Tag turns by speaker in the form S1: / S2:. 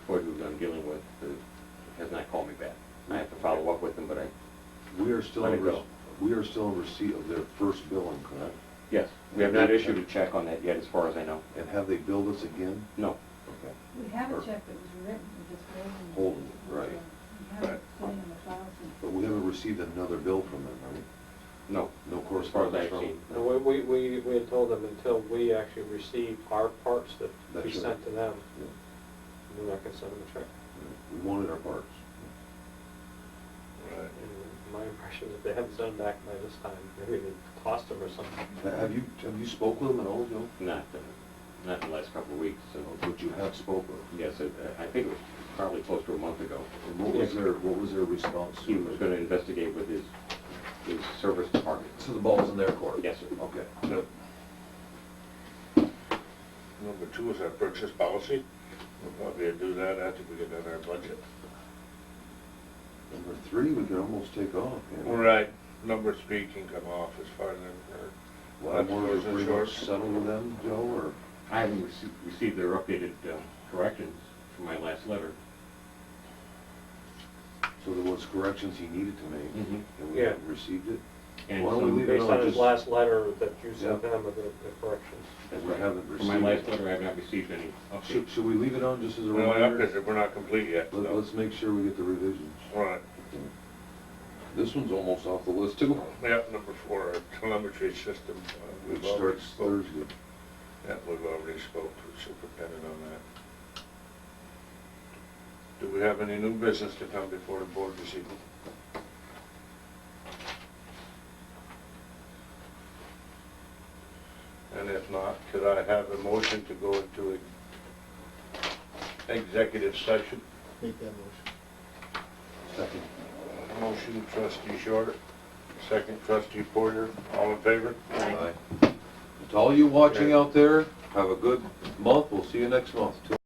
S1: are still,
S2: Let it
S1: in re-
S2: go.
S1: we are still in receipt of their first billing, correct?
S2: Yes, we have not issued a check on that yet, as far as I know.
S1: And have they billed us again?
S2: No.
S1: Okay.
S3: We have a check that was written, we just waiting.
S1: Holden, right.
S3: We have it sitting in the files. and-
S1: But we haven't received another bill from them, right?
S2: No.
S1: No
S2: As far as
S1: correspondence
S2: I've
S1: from
S2: seen.
S4: No, we, we, we we had told them until we actually receive our parts that we
S1: That's right.
S4: sent to them,
S1: Yeah,
S4: we're not gonna send them a check.
S1: yeah. We wanted our parts.
S5: Right.
S4: And My impression is they haven't sent them back by this time, maybe they tossed them or something.
S1: Ha- Have you, have you spoke with them at all, Joe?
S2: Not, uh, not in the last couple of weeks, so,
S1: But you have spoke with them.
S2: yes, it- I think it was probably close to a month ago.
S1: And what was their, what was their response
S2: He was
S1: to it?
S2: gonna investigate with his, his service department.
S1: So the ball's in their court?
S2: Yes, sir.
S1: Okay.
S5: Yep. Number two is our purchase policy. We'll probably do that after we get done our budget.
S1: Number three, we can almost take off. can't we?
S5: All right, number three can come off as far as, uh,
S1: Well,
S5: That's
S1: we're
S5: yours and
S1: pretty
S5: yours.
S1: much settled with them, Joe,
S2: I haven't received, received their updated uh, corrections from my last letter.
S1: or, so there was corrections he needed to make,
S2: Mhm.
S1: and we
S4: Yeah.
S1: haven't received it?
S2: And
S1: Mm-hmm. Why don't
S2: some-
S1: we leave it
S4: Based on his
S1: just-
S4: last letter that you sent
S1: Yeah.
S4: them of the the corrections.
S2: That's
S1: we
S2: right.
S1: haven't
S2: From my
S1: received
S2: last
S1: it.
S2: letter, I have not received any
S1: Should,
S2: updates.
S1: should we leave it on just as a
S5: we're not up
S1: reminder?
S5: there, we're not complete yet,
S1: Let,
S5: so.
S1: let's make sure we get the revisions.
S5: All right,
S1: This one's almost off the list too.
S5: yeah, number four, our telemetry system. uh,
S1: Which
S5: we've already
S1: starts
S5: spoke-
S1: Thursday.
S5: Yeah, we've already spoke to the superintendent on that. Do we have any new business to come before the board this evening? And if not, could I have a motion to go into a executive session?
S6: Make that motion.
S1: Second.
S5: Motion trustee Shorter, second trustee Porter, all in favor?
S1: Aye. To all you watching out there, have a good month. We'll see you next month.